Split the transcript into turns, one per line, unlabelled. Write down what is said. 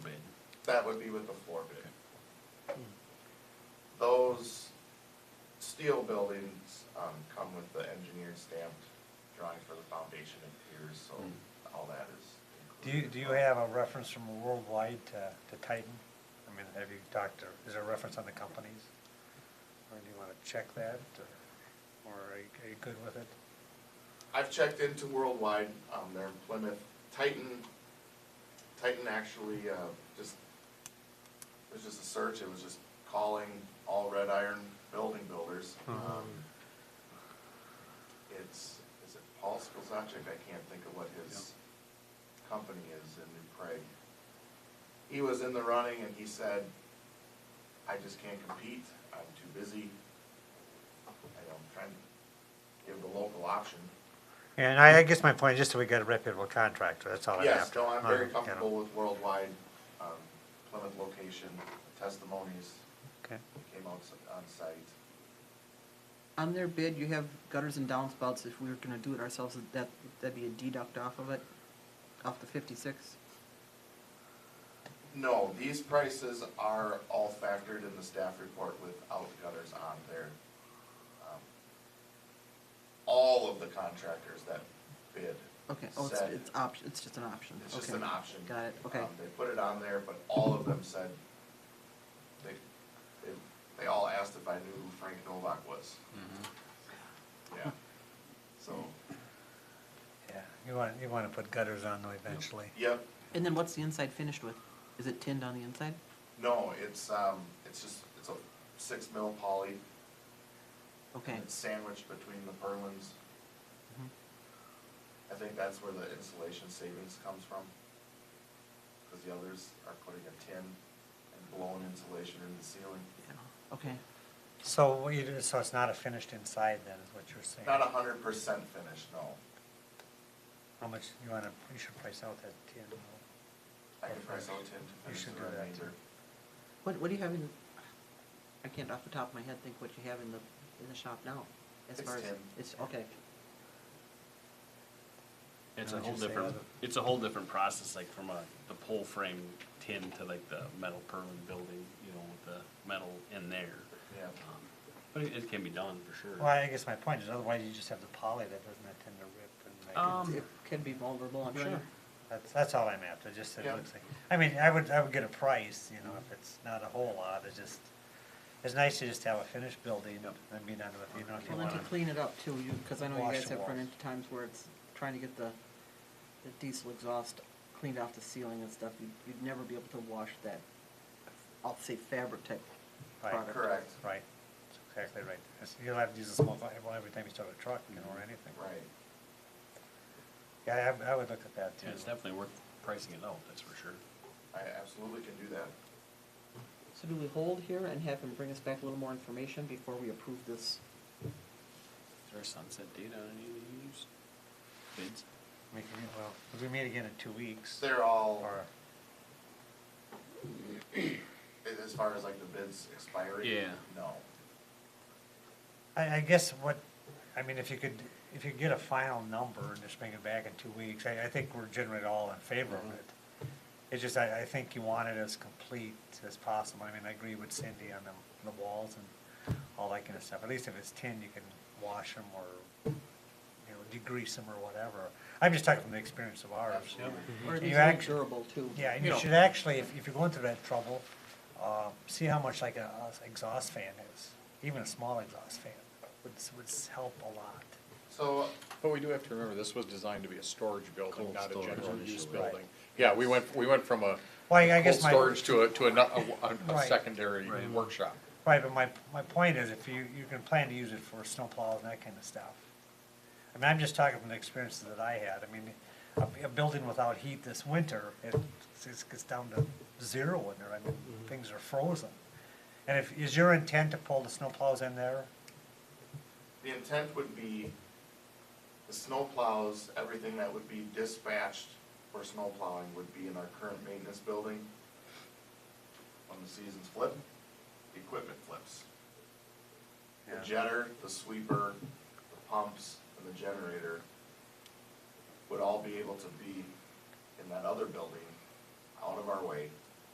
That would be with the floor bid. Those steel buildings, um, come with the engineer stamped drawing for the foundation and piers, so all that is
Do you,
included.
do you have a reference from worldwide to, to Titan? I mean, have you talked to, is there a reference on the companies? Or do you want to check that, or- or are you, are you good with it?
I've checked into Worldwide, um, they're in Plymouth, Titan, Titan actually, uh, just, it was just a search, it was just calling all red iron building builders. Um, It's, is it Paul Skolzaczyk, I can't think of what his company is in New Prague. He was in the running and he said, I just can't compete, I'm too busy, I don't, trying to give the local option.
And I, I guess my point, just so we get a reputable contractor, that's all I'm
Yes,
after.
no, I'm
Uh,
very
you know,
comfortable with worldwide, um, Plymouth location, testimonies
Okay,
came out s- on site.
On their bid, you have gutters and downspouts, if we were gonna do it ourselves, that, that'd be a deduct off of it, off the fifty-six?
No, these prices are all factored in the staff report without gutters on there. Um, All of the contractors that bid.
Okay, oh, it's,
said-
it's option, it's just an option,
It's just
okay.
an option.
Got it, okay,
Um, They put it on there, but all of them said, they, they, they all asked if I knew who Frank Novak was.
Mm-hmm.
Yeah, so,
yeah, you want, you want to put gutters on though eventually.
yep,
and then what's the inside finished with? Is it tinned on the inside?
no, it's, um, it's just, it's a six mil poly.
Okay,
It's sandwiched between the purlins.
Mhm.
I think that's where the insulation savings comes from. Cause the others are putting a tin and blown insulation in the ceiling.
yeah, okay,
So what you do, so it's not a finished inside then, is what you're saying?
Not a hundred percent finished, no.
How much, you want to, you should price out that tin.
I can price out tin to
You
finish
should
the
do that
remainder.
too.
what, what do you have in, I can't off the top of my head think what you have in the, in the shop now, as
It's
far as,
tinned.
it's, okay,
It's
How
a
would
whole
you say
different,
other-
it's a whole different process, like from a, the pole frame tin to like the metal purlin building, you know, with the metal in there.
Yeah,
Um, But it, it can be done for sure.
Well, I guess my point is otherwise you just have the poly that doesn't tend to rip and make it.
Um,
it can be vulnerable, I'm sure.
Sure.
That's, that's all I'm after, just that it
Yeah.
looks like, I mean, I would, I would get a price, you know, if it's not a whole lot, it's just, it's nice to just have a finished building and be done with, you know, if you
Well, then
want
to clean it up too, you, because I know you
Wash
guys
the
have run
walls.
into times where it's trying to get the, the diesel exhaust cleaned off the ceiling and stuff, you'd, you'd never be able to wash that, I'll say fabric type
Right.
product.
correct,
Right, that's exactly right. That's- You'll have to use a small, fi- well, every time you start a truck, you know, or anything.
right.
Yeah, I, I would look at that too.
Yeah, it's definitely worth pricing it out, that's for sure.
I absolutely can do that.
So do we hold here and have him bring us back a little more information before we approve this?
Is there a sunset date on any of these bids?
We can, well, if we meet again in two weeks,
They're all,
or,
as far as like the bids expiring?
Yeah.
No.
I, I guess what, I mean, if you could, if you get a final number and just bring it back in two weeks, I, I think we're generally all in favor of it. It's just, I, I think you want it as complete as possible. I mean, I agree with Cindy on the, the walls and all that kind of stuff. At least if it's tin, you can wash them or, you know, degrease them or whatever. I'm just talking from the experience of ours.
Absolutely.
Or at
You
least make
actu-
durable too?
Yeah, and you
Yeah.
should actually, if, if you're going through that trouble, uh, see how much like a, a exhaust fan is. Even a small exhaust fan would, s- would s- help a lot.
So,
But we do have to remember, this was designed to be a storage building,
Cold
not a
storage
general use
initially.
building. Yeah, we went, we went from a
Well, I I
cold
guess my,
storage to a, to a, no- a- a
Right.
secondary
Right.
workshop.
right, but my, my point is if you, you can plan to use it for snowplows and that kind of stuff. I mean, I'm just talking from the experiences that I had. I mean, a, a building without heat this winter, it, it's, it's down to zero in there. I mean,
Mm-hmm.
things are frozen. And if, is your intent to pull the snowplows in there?
the intent would be the snow plows, everything that would be dispatched for snow plowing would be in our current maintenance building. When the seasons flip, the equipment flips. The
Yeah.
jetter, the sweeper, the pumps, and the generator would all be able to be in that other building, out of our way,